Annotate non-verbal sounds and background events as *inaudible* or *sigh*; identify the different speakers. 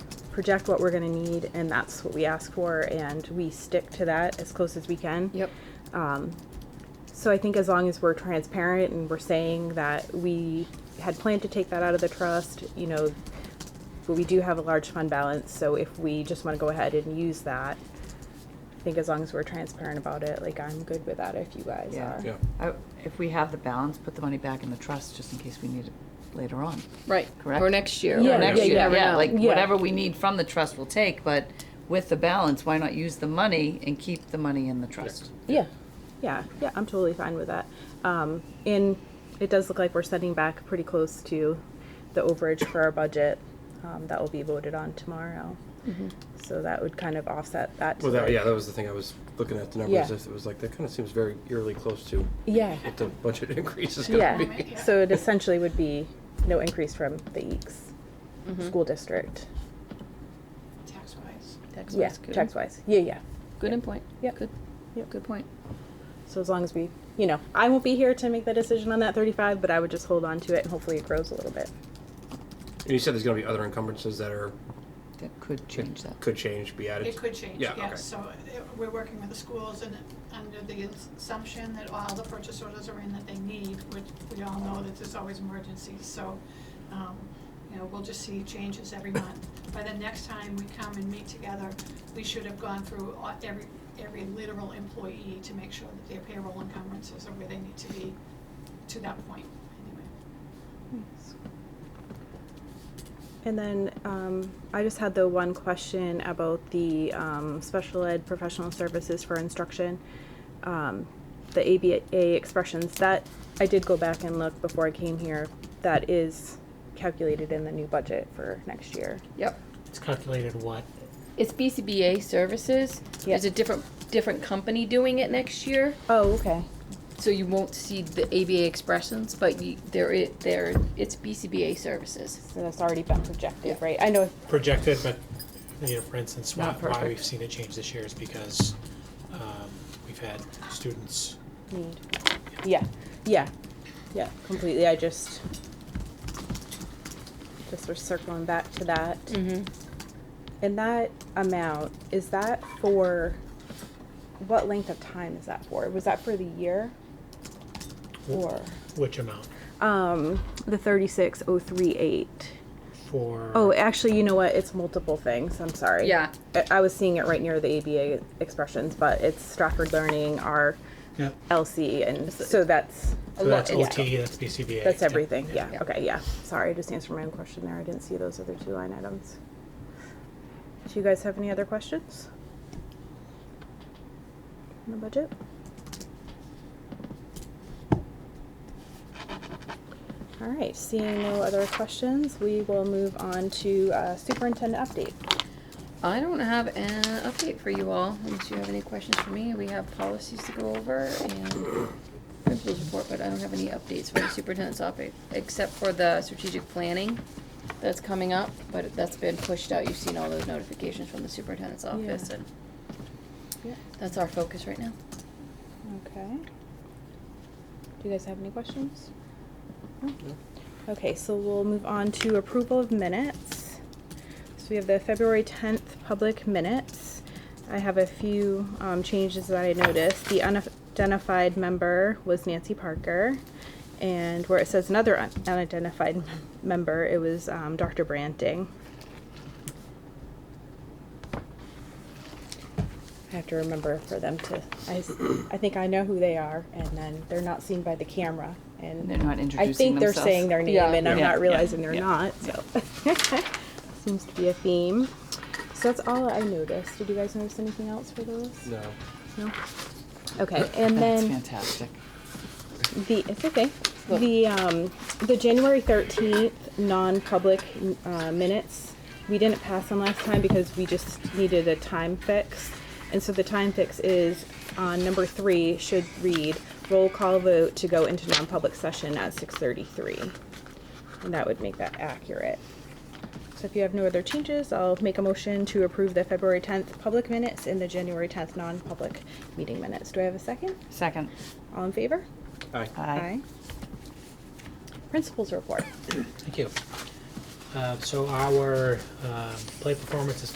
Speaker 1: project what we're gonna need, and that's what we ask for, and we stick to that as close as we can.
Speaker 2: Yep.
Speaker 1: So I think as long as we're transparent and we're saying that we had planned to take that out of the trust, you know, but we do have a large fund balance, so if we just want to go ahead and use that, I think as long as we're transparent about it, like I'm good with that if you guys are.
Speaker 3: Yeah.
Speaker 4: I- If we have the balance, put the money back in the trust just in case we need it later on.
Speaker 2: Right.
Speaker 4: Correct.
Speaker 2: Or next year.
Speaker 1: Yeah,
Speaker 4: Or next
Speaker 1: yeah,
Speaker 4: year,
Speaker 1: yeah.
Speaker 4: yeah, like
Speaker 1: Yeah.
Speaker 4: whatever we need from the trust we'll take, but with the balance, why not use the money and keep the money in the trust?
Speaker 1: Yeah, yeah, yeah. I'm totally fine with that. Um, and it does look like we're setting back pretty close to the overage for our budget. Um, that will be voted on tomorrow. So that would kind of offset that.
Speaker 3: Well, that, yeah, that was the thing I was looking at the numbers.
Speaker 1: Yeah.
Speaker 3: It was like that kind of seems very eerily close to
Speaker 1: Yeah.
Speaker 3: what the budget *laughs* increase is going to be.
Speaker 1: Yeah. So it essentially would be no increase from the Eeks
Speaker 2: Mm-hmm.
Speaker 1: school district.
Speaker 5: tax wise.
Speaker 2: Tax
Speaker 1: Yeah,
Speaker 2: wise, good.
Speaker 1: tax wise. Yeah, yeah.
Speaker 2: Good in point.
Speaker 1: Yep.
Speaker 2: Good.
Speaker 1: Yep.
Speaker 2: Good point.
Speaker 1: So as long as we, you know, I won't be here to make the decision on that 35, but I would just hold on to it and hopefully it grows a little bit.
Speaker 3: And you said there's going to be other encumbrances that are
Speaker 4: That could change that.
Speaker 3: could change, be added.
Speaker 5: It could change,
Speaker 3: Yeah, okay.
Speaker 5: yes. So uh, we're working with the schools and under the assumption that all the purchase orders are in that they need, which we all know that there's always emergencies. So, um, you know, we'll just see
Speaker 3: *coughs*
Speaker 5: changes every month. By the next time we come and meet together, we should have gone through all- every, every literal employee to make sure that their payroll encumbrances are where they need to be to that point, anyway.
Speaker 1: And then um, I just had the one question about the um, special ed professional services for instruction, um, the ABA expressions. That I did go back and look before I came here. That is calculated in the new budget for next year.
Speaker 2: Yep.
Speaker 6: It's calculated what?
Speaker 2: It's BCBA services. There's a different different company doing it next year,
Speaker 1: Oh, okay.
Speaker 2: so you won't see the ABA expressions, but you, there it there it's BCBA services.
Speaker 1: So that's already been projected,
Speaker 2: Yeah.
Speaker 1: right? I know.
Speaker 6: Projected, but, you know, for instance, why,
Speaker 4: Not
Speaker 6: why
Speaker 4: perfect.
Speaker 6: we've seen it change this year is because, um, we've had students,
Speaker 1: Need. Yeah, yeah, yeah. Completely. I just just was circling back to that.
Speaker 2: Mm-hmm.
Speaker 1: And that amount, is that for, what length of time is that for? Was that for the year? Or,
Speaker 6: which amount?
Speaker 1: um, the thirty-six oh three eight.
Speaker 6: For.
Speaker 1: Oh, actually, you know what? It's multiple things. I'm sorry.
Speaker 2: Yeah.
Speaker 1: I, I was seeing it right near the ABA expressions, but it's Stratford Learning, our
Speaker 6: Yeah,
Speaker 1: LC, and so that's,
Speaker 6: so that's
Speaker 2: lot- yeah.
Speaker 6: OT, that's BCBA.
Speaker 1: that's
Speaker 6: yeah,
Speaker 1: everything. Yeah,
Speaker 2: Yeah.
Speaker 1: okay, yeah. Sorry, I just answered my own question there. I didn't see those other two line items. Do you guys have any other questions? On the budget? All right, seeing no other questions, we will move on to uh, superintendent update.
Speaker 2: I don't have an update for you all, unless you have any questions for me. We have policies to go over and principals report, but I don't have any updates for the superintendent's topic, except for the strategic planning that's coming up, but that's been pushed out. You've seen all those notifications from the superintendent's office,
Speaker 1: Yeah.
Speaker 2: and
Speaker 1: Yeah.
Speaker 2: that's our focus right now.
Speaker 1: Okay. Do you guys have any questions? No? Okay, so we'll move on to approval of minutes. So we have the February tenth public minutes. I have a few, um, changes that I noticed. The unidentified member was Nancy Parker. And where it says another un- unidentified *laughs* mem- member, it was, um, Dr. Branting. I have to remember for them to, I, s- I think I know who they are, and then they're not seen by the camera, and.
Speaker 4: And they're not
Speaker 1: I
Speaker 4: introducing
Speaker 1: think they're
Speaker 4: themselves.
Speaker 1: saying
Speaker 4: *laughs*
Speaker 1: their name,
Speaker 2: Yeah.
Speaker 1: and I'm
Speaker 4: Yeah.
Speaker 1: not
Speaker 4: Yeah.
Speaker 1: realizing they're
Speaker 4: Yeah.
Speaker 1: not, so. *laughs* Seems to be a theme. So that's all I noticed. Did you guys notice anything else for those?
Speaker 3: No.
Speaker 1: No? Okay, and
Speaker 4: That's
Speaker 1: then
Speaker 4: fantastic.
Speaker 1: the, it's okay. The, um, the January thirteenth, non-public, uh, minutes, we didn't pass them last time because we just needed a time fix. And so the time fix is, on number three, should read, roll call vote to go into non-public session at six thirty-three. And that would make that accurate. So if you have no other changes, I'll make a motion to approve the February tenth public minutes and the January tenth non-public meeting minutes. Do I have a second?
Speaker 4: Second.
Speaker 1: All in favor?
Speaker 3: Aye.
Speaker 4: Aye.
Speaker 1: Principals report.
Speaker 6: Thank you. Uh, so our um, play performance is